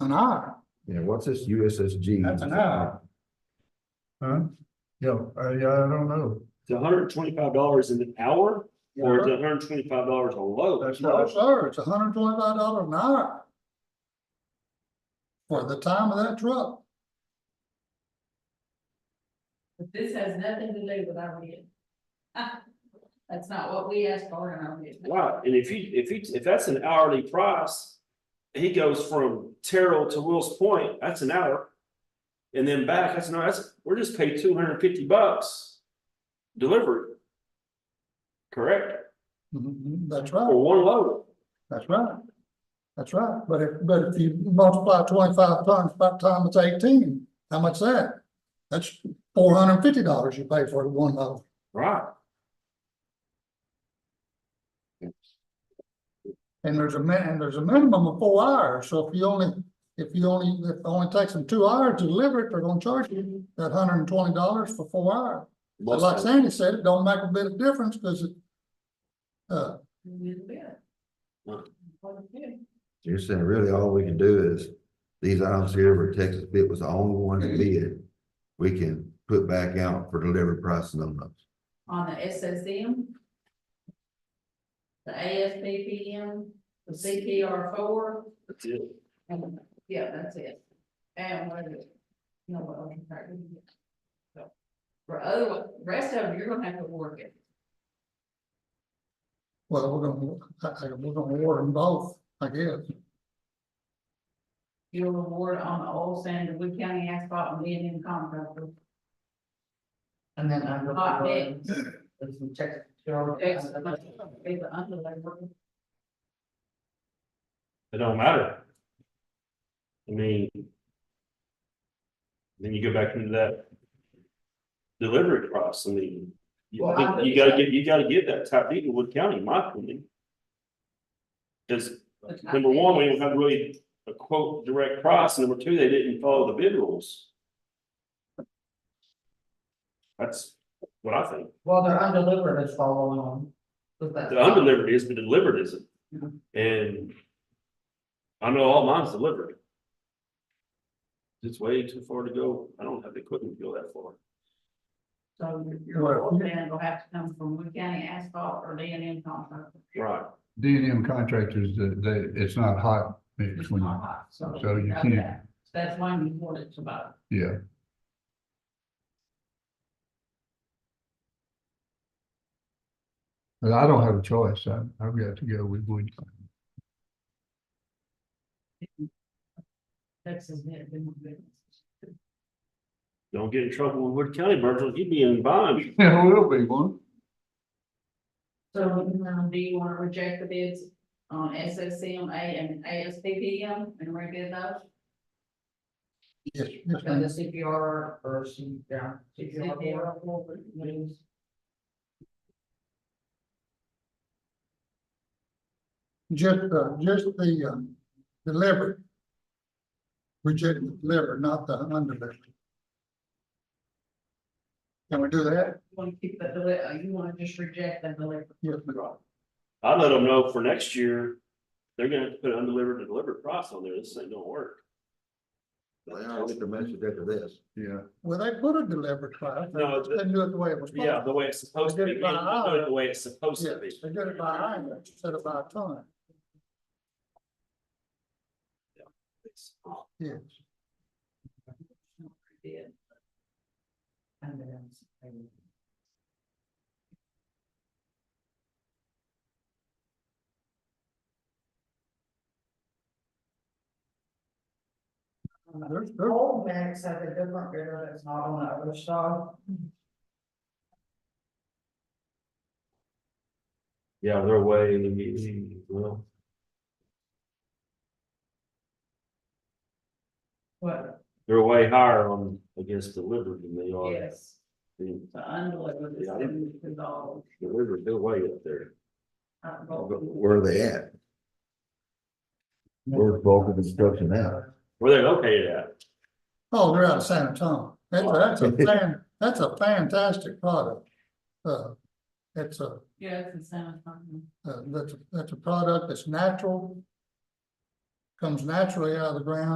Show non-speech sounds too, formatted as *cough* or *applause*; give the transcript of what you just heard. an R. Yeah, what's this USSG? That's an R. Huh? Yeah, I, I don't know. It's hundred and twenty-five dollars an hour, or is it hundred and twenty-five dollars a load? That's No, not, sir, it's hundred and twenty-five dollars an hour. For the time of that truck. But this has nothing to do with our bid. *laughs* That's not what we asked for in our bid. Wow, and if you, if you, if that's an hourly price, he goes from Terrell to Will's Point, that's an hour. And then back, that's not, that's, we're just paid two hundred and fifty bucks delivery. Correct, Mhm, That's for right, one load, that's right. That's right, but if, but if you multiply twenty-five times by time it's eighteen, how much that? That's four hundred and fifty dollars you pay for one load. right? And there's a min, and there's a minimum of four hours, so if you only, if you only, if it only takes them two hours to deliver it, they're gonna charge you that hundred and twenty dollars for four hours. But like Sandy said, it don't make a bit of difference, cause it. Uh, We did the bid. Right. What we did. You're saying really all we can do is, these items here where Texas bid was the only one that bid, we can put back out for delivery price and on those. On the SSM. The ASPPM, the CPR four, That's it. and, yeah, that's it. And what is it? No, what else is there? So, For other, rest of them, you're gonna have to work it. well, we're gonna, I, I, we're gonna award them both, I guess. You'll award on the old sand, Wood County asphalt and being in contractor. And then I look. Hot at mix. There's some check. Cheryl- It's the underlay work. It don't matter. I mean. Then you go back into that. Delivery price, I mean. You Well, I think I- you gotta get, you gotta get that top deed in Wood County, in my opinion. Cause But I number one, we think- don't have really a quote direct price, and number two, they didn't follow the bid rules. That's what I think. Well, they're undelivered is following on. with that. The undelivered is, but delivered isn't. Yeah. And. I know all mine's delivered. It's way too far to go. I don't have the equipment to go that far. So your- your old sand will have to come from Wood County asphalt or being in contractor. Right. D and M contractors, they, they- it's not hot mix It's when, not hot, so. so you okay. can't, That's why you want it to buy. yeah. But I don't have a choice. I, I've got to go with *laughs* Wood. Texas bid, been more business. Don't get in trouble with Wood County, Virgil. You'd be in bond. Yeah, will be one. So um, do you want to reject the bids on SSCMA and ASPPM and rebid those? Yes, yes, And the ma'am. CPR or C, yeah. CPR CPR. or- what is- just, uh, just the, um, delivery. Reject the delivery, not the undelivered. Can we do that? You want to keep the, deli- uh, you want to just reject the delivery? Yes, ma'am. I let them know for next year, they're gonna have to put undelivered and delivered price on there. This ain't gonna work. They all get the message after this. Yeah. Well, they put a delivery class. they No, just the- Didn't do it the way it was. supposed Yeah, to. the way it's supposed to be, They don't do it the way it's supposed Yeah, to be. they did it by hand instead of by ton, yes. Bid. And then it's- There's, The there's, Old mix has a different grader that's not on the other side. Yeah, they're way, well, What? they're way higher on against delivered than they are. Yes, the the undelivered is Yeah. seventy-two dollars. Delivered, they're way up there. uh, But Where are they at? Where's bulk of construction now? Where they located at? oh, they're out of San Antonio. That's, that's *laughs* a fan, that's a fantastic product. Uh, it's a, Yeah, it's the same. thing. uh, that's, that's a product that's natural. Comes naturally out of the ground.